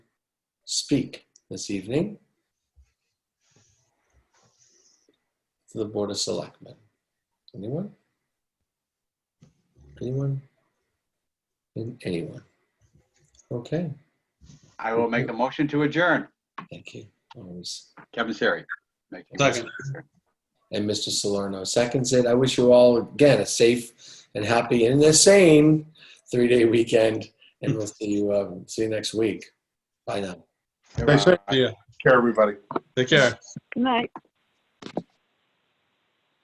speak this evening to the Board of Selectmen? Anyone? Anyone? And anyone? Okay, I will make the motion to adjourn. thank you. Always. Kevin Siri. making a motion Second. to adjourn. And Mr. Salerno seconds it. I wish you all, again, a safe and happy and the same three-day weekend. And we'll see you, um, see you next week. Bye now. Thanks, Goodbye. yeah. Care, everybody. Take care. Good night.